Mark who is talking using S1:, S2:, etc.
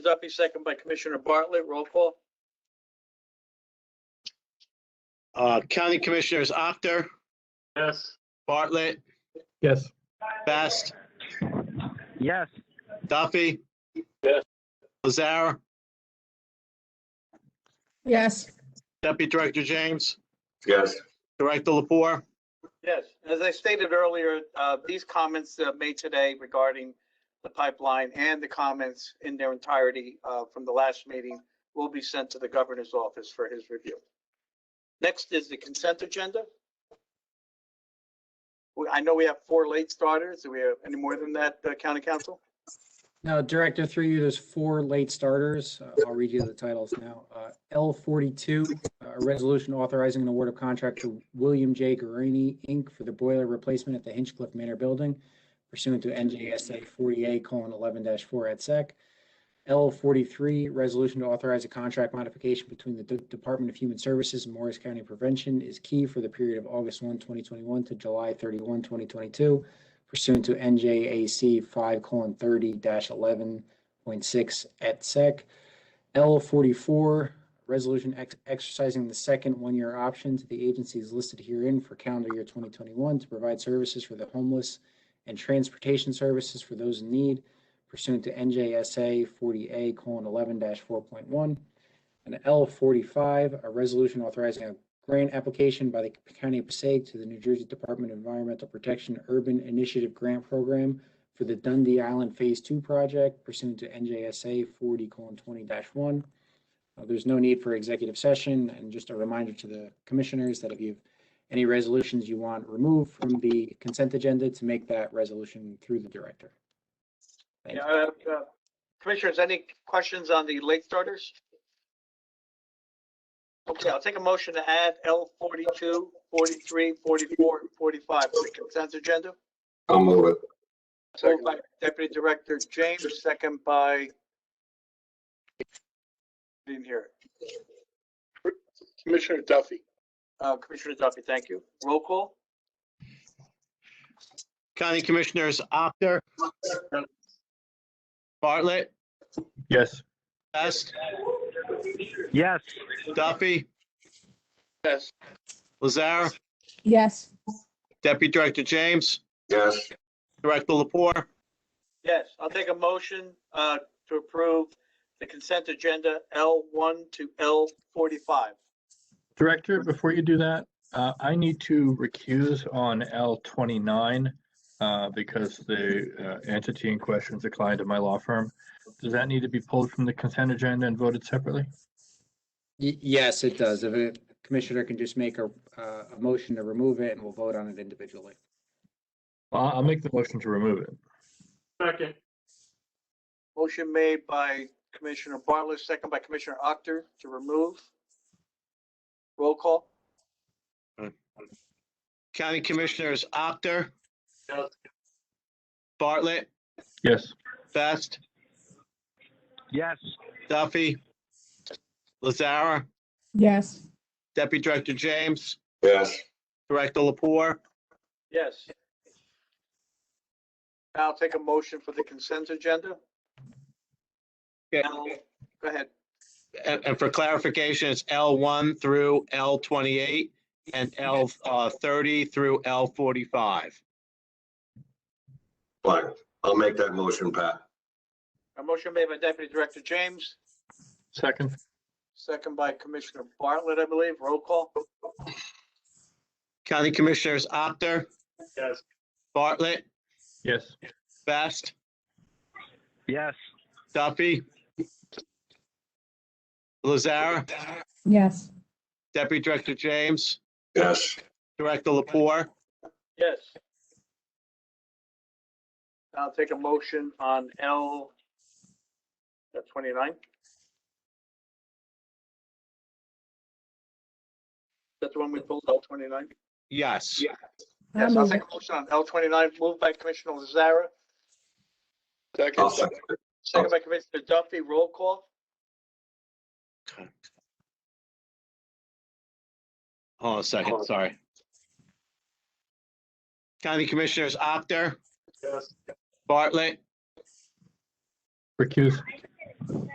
S1: Duffy, second by Commissioner Bartlett. Roll call.
S2: Uh, County Commissioners Actor,
S3: Yes.
S2: Bartlett,
S4: Yes.
S2: Best,
S5: Yes.
S2: Duffy.
S3: Yes.
S2: Lazara,
S6: yes,
S2: Deputy Director James,
S3: Yes.
S2: Director Lapore.
S1: Yes, as I stated earlier, uh, these comments uh, made today regarding the pipeline and the comments in their entirety uh, from the last meeting will be sent to the governor's office for his review. Next is the consent agenda. We- I know we have four late starters. Do we have any more than that, uh, County Council?
S7: Now, Director, through you, there's four late starters. Uh, I'll read you the titles now. Uh, L forty-two, uh, a resolution authorizing an award of contract to William J. Guarini, Inc. for the boiler replacement at the Hinchcliffe Manor Building pursuant to NJSA forty-eight colon eleven four at sec. L forty-three, resolution to authorize a contract modification between the De- Department of Human Services and Morris County Prevention is key for the period of August 1, 2021, to July 31, 2022 pursuant to NJAC five colon thirty eleven point six et sec. L forty-four, resolution ex- exercising the second one-year option to the agencies listed herein for calendar year twenty twenty-one to provide services for the homeless and transportation services for those in need pursuant to NJSA forty A colon eleven four point one. And L forty-five, a resolution authorizing a grant application by the County of Passaic to the New Jersey Department of Environmental Protection Urban Initiative Grant Program for the Dundee Island Phase Two project pursuant to NJSA forty twenty one. Uh, There's no need for executive session and just a reminder to the commissioners that if you have any resolutions you want removed from the consent agenda to make that resolution through the director. Thank you.
S1: Yeah, uh, uh, Commissioners, any questions on the late starters? Okay, I'll take a motion to add L 42, 43, 44, and 45 to the consent agenda.
S3: I'll move it.
S1: Moved by Deputy Director James, second by didn't hear it.
S3: Commissioner Duffy.
S1: Uh, Commissioner Duffy, thank you. Roll call?
S2: County Commissioners Actor. Bartlett,
S4: Yes.
S2: Best,
S5: Yes.
S2: Duffy,
S3: Yes.
S2: Lazara,
S6: yes.
S2: Deputy Director James,
S3: Yes.
S2: Director Lapore.
S1: Yes, I'll take a motion uh, to approve the consent agenda L1 to L45.
S4: Director, before you do that, uh, I need to recuse on L twenty-nine uh, because the uh, entity in question is a client of my law firm. Does that need to be pulled from the consent agenda and voted separately?
S7: Y- Yes, it does. If a commissioner can just make a, uh, a motion to remove it and we'll vote on it individually.
S4: I'll, Uh, I'll make the motion to remove it.
S3: Second.
S1: Motion made by Commissioner Bartlett, second by Commissioner Actor to remove. Roll call?
S2: County Commissioners Actor.
S3: Yes.
S2: Bartlett,
S4: Yes.
S2: Best,
S5: Yes.
S2: Duffy, Lazara,
S6: Yes.
S2: Deputy Director James,
S3: Yes.
S2: Director Lapore.
S1: Yes. Now I'll take a motion for the consent agenda.
S2: Yeah.
S1: Now, Go ahead.
S2: And, and for clarification, it's L one through L twenty-eight and L, uh, thirty through L forty-five.
S8: Fine, I'll make that motion, Pat.
S1: A motion made by Deputy Director James,
S4: Second.
S1: second by Commissioner Bartlett, I believe. Roll call?
S2: County Commissioners Actor,
S3: Yes.
S2: Bartlett,
S4: Yes.
S2: Best,
S5: Yes.
S2: Duffy, Lazara,
S6: Yes.
S2: Deputy Director James,
S8: Yes,
S2: Director Lapore.
S1: Yes. I'll take a motion on L uh, 29. That's the one we pulled, L 29?
S2: Yes.
S6: I'll
S1: Yes, I'll
S6: move
S1: take
S6: it.
S1: a motion on L 29, moved by Commissioner Lazara,
S3: Second.
S8: I'll second it.
S1: second by Commissioner Duffy. Roll call?
S2: Hold on a second, sorry. County Commissioners Actor,
S3: Yes.
S2: Bartlett,
S4: Recuse.